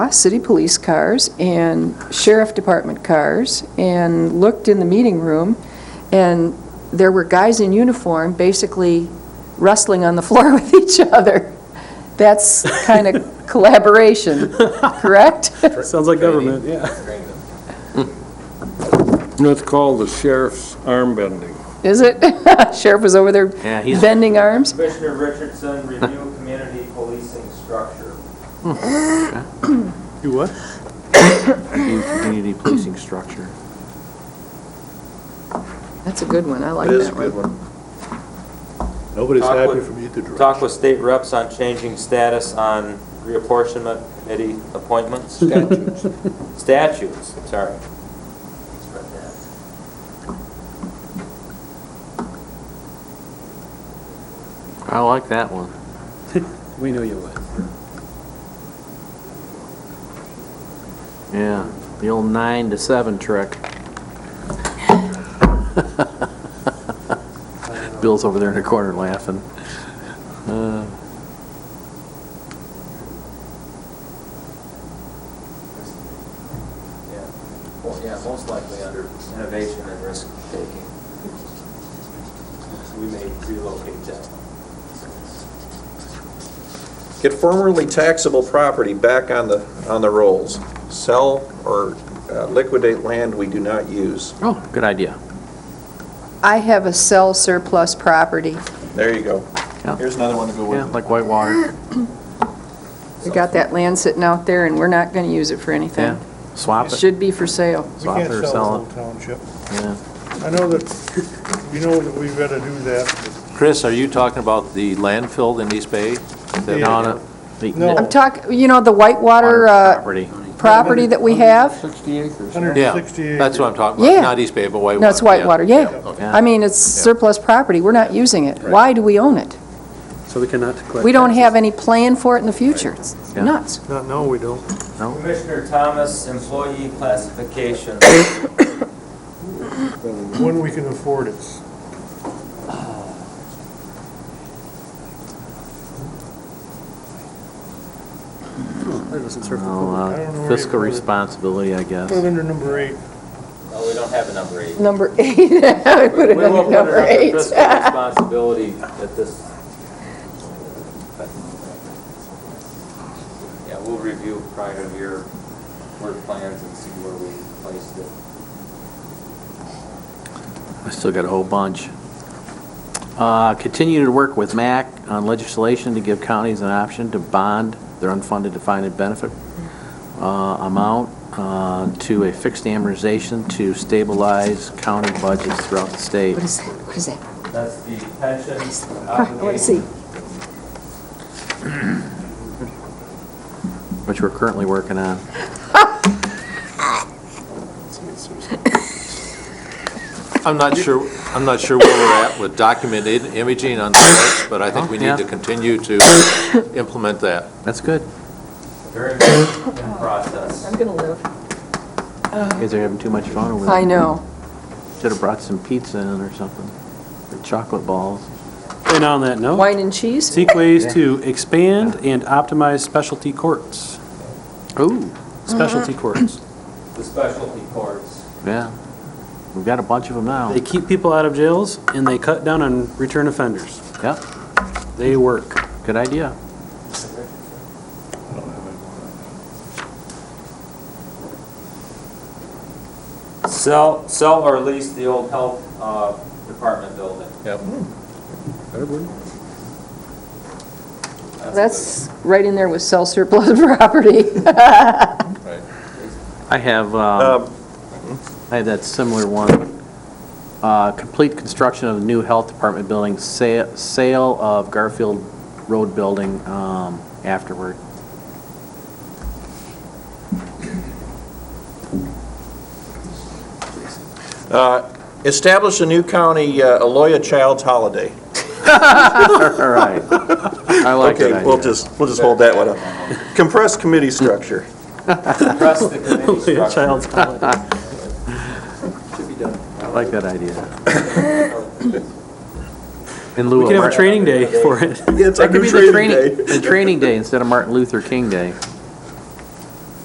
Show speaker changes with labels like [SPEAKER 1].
[SPEAKER 1] uh, city police cars and sheriff department cars, and looked in the meeting room, and there were guys in uniform basically wrestling on the floor with each other. That's kind of collaboration, correct?
[SPEAKER 2] Sounds like government, yeah.
[SPEAKER 3] That's called the sheriff's arm bending.
[SPEAKER 1] Is it? Sheriff was over there
[SPEAKER 4] Yeah, he's-
[SPEAKER 1] bending arms?
[SPEAKER 5] Commissioner Richardson, review community policing structure.
[SPEAKER 2] You what?
[SPEAKER 4] New community policing structure.
[SPEAKER 1] That's a good one, I like
[SPEAKER 6] That is a
[SPEAKER 1] that
[SPEAKER 6] good
[SPEAKER 1] one.
[SPEAKER 6] one.
[SPEAKER 2] Nobody's
[SPEAKER 5] Talk
[SPEAKER 2] happy
[SPEAKER 5] with-
[SPEAKER 2] from either direction.
[SPEAKER 5] Talk with state reps on changing status on reapportionment committee appointments,
[SPEAKER 6] Statutes.
[SPEAKER 5] statutes, sorry.
[SPEAKER 4] I like that one.
[SPEAKER 2] We know you would.
[SPEAKER 4] Yeah, the old nine to seven trick. Bill's over there in the corner laughing. Uh,
[SPEAKER 5] Yeah, most likely under innovation and risk taking. We may relocate that.
[SPEAKER 6] Get formerly taxable property back on the, on the rolls. Sell or uh, liquidate land we do not use.
[SPEAKER 4] Oh, good idea.
[SPEAKER 1] I have a sell surplus property.
[SPEAKER 6] There you go.
[SPEAKER 4] Yeah.
[SPEAKER 6] Here's another one to go
[SPEAKER 4] Yeah,
[SPEAKER 6] with.
[SPEAKER 4] like Whitewater.
[SPEAKER 1] We got that land sitting out there, and we're not going to use it for anything.
[SPEAKER 4] Yeah, swap it.
[SPEAKER 1] Should be for sale.
[SPEAKER 7] We
[SPEAKER 4] Swap
[SPEAKER 7] can't
[SPEAKER 4] it or
[SPEAKER 7] sell
[SPEAKER 4] sell
[SPEAKER 7] the whole township.
[SPEAKER 4] Yeah.
[SPEAKER 7] I know that, you know that we've got to do that.
[SPEAKER 8] Chris, are you talking about the landfill in East Bay? The
[SPEAKER 7] Yeah.
[SPEAKER 8] non-
[SPEAKER 4] The-
[SPEAKER 7] No.
[SPEAKER 8] Oh.
[SPEAKER 1] I'm talking, you know, the Whitewater uh,
[SPEAKER 4] Property.
[SPEAKER 1] property that we have?
[SPEAKER 3] 60 acres.
[SPEAKER 8] Yeah,
[SPEAKER 7] 160 acres.
[SPEAKER 8] that's what I'm talking about.
[SPEAKER 1] Yeah.
[SPEAKER 8] Not East Bay, but Whitewater.
[SPEAKER 1] No, it's
[SPEAKER 8] yeah.
[SPEAKER 1] Whitewater, yeah.
[SPEAKER 8] Okay.
[SPEAKER 1] I mean, it's surplus property, we're not using it. Why do we own it?
[SPEAKER 2] So they cannot collect.
[SPEAKER 1] We don't have any plan for it in the future. It's
[SPEAKER 4] Yeah.
[SPEAKER 1] nuts.
[SPEAKER 7] No, No, we don't.
[SPEAKER 5] Commissioner Thomas, employee classification.
[SPEAKER 7] When we can afford it.
[SPEAKER 2] That doesn't serve the
[SPEAKER 4] Oh,
[SPEAKER 2] public.
[SPEAKER 4] uh,
[SPEAKER 7] I don't know where you
[SPEAKER 4] Fiscal
[SPEAKER 7] put it.
[SPEAKER 4] responsibility, I guess.
[SPEAKER 1] Mm-hmm.
[SPEAKER 7] Put it under number eight.
[SPEAKER 5] No, we don't have a number eight.
[SPEAKER 1] Number eight, I put
[SPEAKER 5] We
[SPEAKER 1] it
[SPEAKER 5] will
[SPEAKER 1] under
[SPEAKER 5] put it
[SPEAKER 1] number
[SPEAKER 5] under
[SPEAKER 1] eight.
[SPEAKER 5] fiscal responsibility at this. Yeah, we'll review prior to your work plans and see where we placed it.
[SPEAKER 4] I still got a whole bunch. Uh, Continue to work with MAC on legislation to give counties an option to bond their unfunded defined benefit uh, amount uh, to a fixed amortization to stabilize county budgets throughout the state.
[SPEAKER 1] What is, what is that?
[SPEAKER 5] That's the pension
[SPEAKER 8] Uh,
[SPEAKER 1] I want to see.
[SPEAKER 5] obligation.
[SPEAKER 4] which we're currently working on.
[SPEAKER 8] I'm not sure, I'm not sure where we're at with documented imaging on sites, but I think we
[SPEAKER 4] Yeah.
[SPEAKER 8] need to continue to implement that.
[SPEAKER 4] That's good.
[SPEAKER 5] Very much in process.
[SPEAKER 1] I'm going to live.
[SPEAKER 4] You guys are having too much fun
[SPEAKER 8] Oh,
[SPEAKER 4] over there.
[SPEAKER 1] I know.
[SPEAKER 4] Should have brought some pizza in or something, or chocolate balls.
[SPEAKER 2] And on that note,
[SPEAKER 1] Wine and cheese?
[SPEAKER 2] seek ways to expand and optimize specialty courts.
[SPEAKER 4] Ooh.
[SPEAKER 2] Specialty courts.
[SPEAKER 5] The specialty courts.
[SPEAKER 4] Yeah. We've got a bunch of them now.
[SPEAKER 2] They keep people out of jails and they cut down on return offenders.
[SPEAKER 4] Yep,
[SPEAKER 2] They work.
[SPEAKER 4] good idea.
[SPEAKER 5] Sell, sell or lease the old health uh, department building.
[SPEAKER 8] Yep.
[SPEAKER 5] a
[SPEAKER 1] That's right in there with sell surplus property.
[SPEAKER 4] I have, um, I have that similar one. Uh, Complete construction of the new health department building, sa- sale of Garfield Road building um, afterward.
[SPEAKER 6] Uh, Establish a new county uh, Aloya Child's Holiday.
[SPEAKER 4] All right. I like that
[SPEAKER 6] Okay, we'll
[SPEAKER 4] idea.
[SPEAKER 6] just, we'll just hold that one up. Compressed committee structure.
[SPEAKER 5] good- Rest of the committee
[SPEAKER 2] Yeah,
[SPEAKER 5] structure.
[SPEAKER 2] Child's holiday.
[SPEAKER 4] I like that idea. In lieu
[SPEAKER 2] We
[SPEAKER 4] of.
[SPEAKER 2] could have a
[SPEAKER 4] Martin-
[SPEAKER 2] training day for it.
[SPEAKER 6] It's
[SPEAKER 4] That could be the training, the training day instead of Martin Luther King Day.